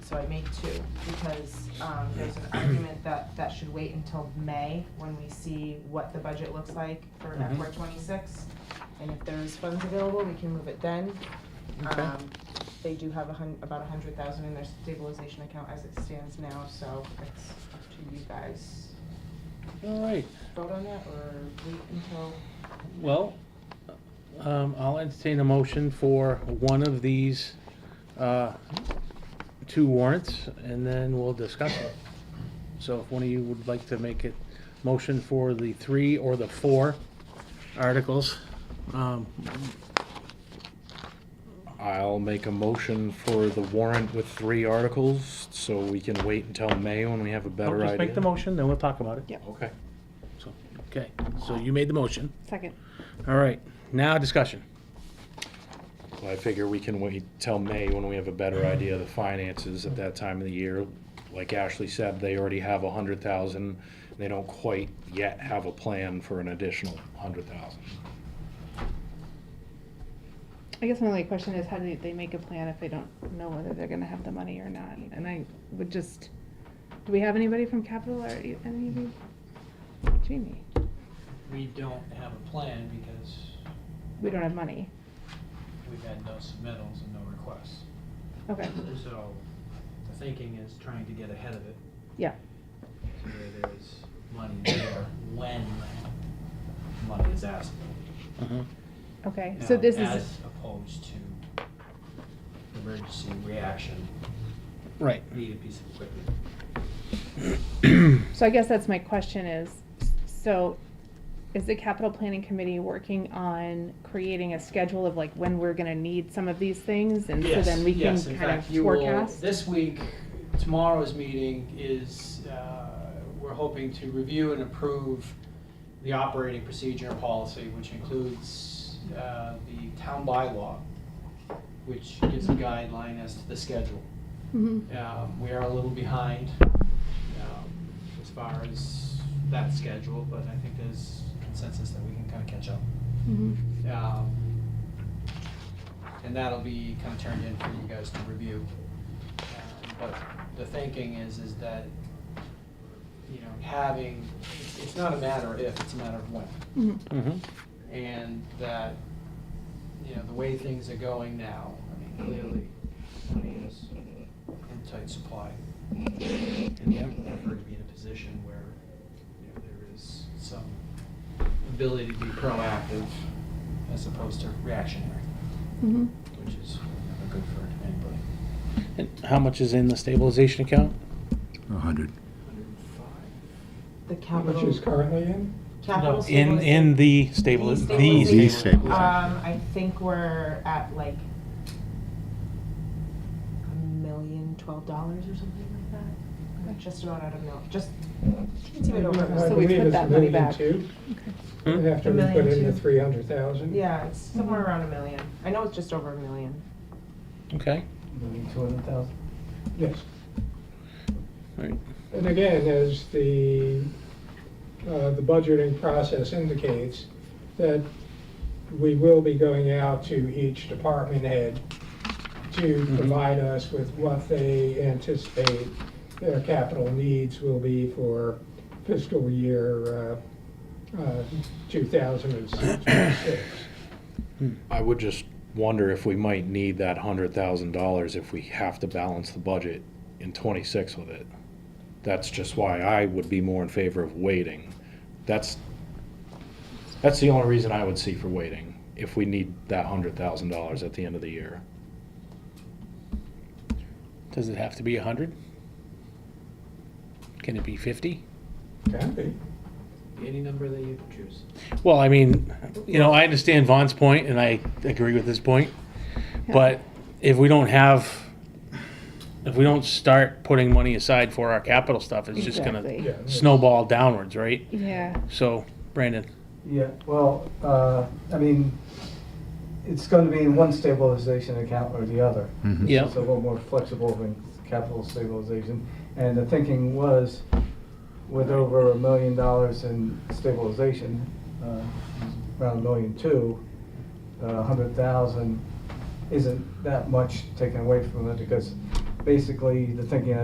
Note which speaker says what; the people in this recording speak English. Speaker 1: so I made two, because, um, there's an argument that that should wait until May, when we see what the budget looks like for
Speaker 2: Mhm.
Speaker 1: FY twenty-six. And if there's funds available, we can move it then.
Speaker 2: Okay.
Speaker 1: Um, They do have a hun, about a hundred thousand in their stabilization account as it stands now, so it's up to you guys.
Speaker 2: All right,
Speaker 1: Vote on that, or wait until,
Speaker 2: well, um, I'll entertain a motion for one of these, uh, two warrants, and then we'll discuss it. So if one of you would like to make a motion for the three or the four articles, um,
Speaker 3: I'll make a motion for the warrant with three articles, so we can wait until May when we have a
Speaker 2: I'll
Speaker 3: better idea.
Speaker 2: just make the motion, then we'll talk about it.
Speaker 4: Yeah.
Speaker 3: Okay.
Speaker 2: So, Okay, so you made the motion.
Speaker 4: Second.
Speaker 2: All right, now discussion.
Speaker 3: Well, I figure we can wait till May when we have a better idea of the finances at that time of the year. Like Ashley said, they already have a hundred thousand, they don't quite yet have a plan for an additional hundred thousand.
Speaker 4: I guess my only question is how do they make a plan if they don't know whether they're gonna have the money or not? And I would just, do we have anybody from capital or any of you? Jamie,
Speaker 5: We don't have a plan because
Speaker 4: we don't have money.
Speaker 5: we've had no submittals and no requests.
Speaker 4: Okay,
Speaker 5: So the thinking is trying to get ahead of it,
Speaker 4: yeah,
Speaker 5: so that there's money there when money is asked.
Speaker 4: okay,
Speaker 5: Now,
Speaker 4: so this is,
Speaker 5: As opposed to emergency reaction,
Speaker 2: Right.
Speaker 5: need a piece of equipment.
Speaker 4: so I guess that's my question is, so is the capital planning committee working on creating a schedule of like when we're gonna need some of these things? And so
Speaker 5: Yes,
Speaker 4: then we can
Speaker 5: yes, in
Speaker 4: kind of
Speaker 5: fact, you will-
Speaker 4: forecast?
Speaker 5: This week, tomorrow's meeting is, uh, we're hoping to review and approve the operating procedure and policy, which includes uh, the town bylaw, which gives a guideline as to the schedule.
Speaker 4: Mhm.
Speaker 5: Um, We are a little behind um, as far as that schedule, but I think there's consensus that we can kind of catch up.
Speaker 4: Mhm.
Speaker 5: Um, And that'll be kind of turned in for you guys to review. Um, But the thinking is, is that, you know, having, it's- it's not a matter of if, it's a matter of when.
Speaker 4: Mhm.
Speaker 2: Mm-hmm.
Speaker 5: And that, you know, the way things are going now, I mean, clearly, money is in tight supply. And yet, we're never to be in a position where, you know, there is some ability to be proactive as opposed to reactionary,
Speaker 4: Mhm.
Speaker 5: which is never good for anybody.
Speaker 2: And how much is in the stabilization account?
Speaker 6: A hundred.
Speaker 5: Hundred and five?
Speaker 1: the
Speaker 7: How
Speaker 1: capital.
Speaker 7: much is currently in?
Speaker 1: Capital
Speaker 2: In, in
Speaker 1: stabilization.
Speaker 2: the stable,
Speaker 1: The
Speaker 2: the
Speaker 1: stabilization.
Speaker 2: stabilization.
Speaker 1: Um, I think we're at like a million twelve dollars or something like that. We're Just about out of mil, just, it's even over. a
Speaker 7: I
Speaker 4: So
Speaker 1: million.
Speaker 4: we
Speaker 7: believe
Speaker 4: put
Speaker 7: it's
Speaker 4: that
Speaker 7: Uh, a
Speaker 4: money
Speaker 7: million
Speaker 4: back.
Speaker 7: two,
Speaker 2: Hmm?
Speaker 7: After
Speaker 1: A
Speaker 7: we
Speaker 1: million
Speaker 7: put in the
Speaker 1: two.
Speaker 7: three hundred thousand.
Speaker 1: Yeah, it's somewhere around a million. I know it's just over a million.
Speaker 2: Okay,
Speaker 7: Million two hundred thousand. Yes.
Speaker 2: all right.
Speaker 7: And again, as the, uh, the budgeting process indicates, that we will be going out to each department head to
Speaker 2: Mhm.
Speaker 7: provide us with what they anticipate their capital needs will be for fiscal year uh, uh, 2006.
Speaker 3: I would just wonder if we might need that hundred thousand dollars if we have to balance the budget in twenty-six with it. That's just why I would be more in favor of waiting. That's, that's the only reason I would see for waiting, if we need that hundred thousand dollars at the end of the year.
Speaker 2: Does it have to be a hundred? Can it be fifty?
Speaker 7: Can be.
Speaker 5: Any number that you choose.
Speaker 2: Well, I mean, you know, I understand Vaughn's point and I agree with his point.
Speaker 4: Yeah.
Speaker 2: But if we don't have, if we don't start putting money aside for our capital stuff, it's just gonna
Speaker 4: Exactly.
Speaker 7: Yeah, that's-
Speaker 2: snowball downwards, right?
Speaker 4: Yeah.
Speaker 2: So, Brandon,
Speaker 8: Yeah, well, uh, I mean, it's going to be in one stabilization account or the other.
Speaker 2: Yeah.
Speaker 8: It's a little more flexible than capital stabilization. And the thinking was, with over a million dollars in stabilization, uh, around a million two, uh, a hundred thousand isn't that much taken away from it because basically, the thinking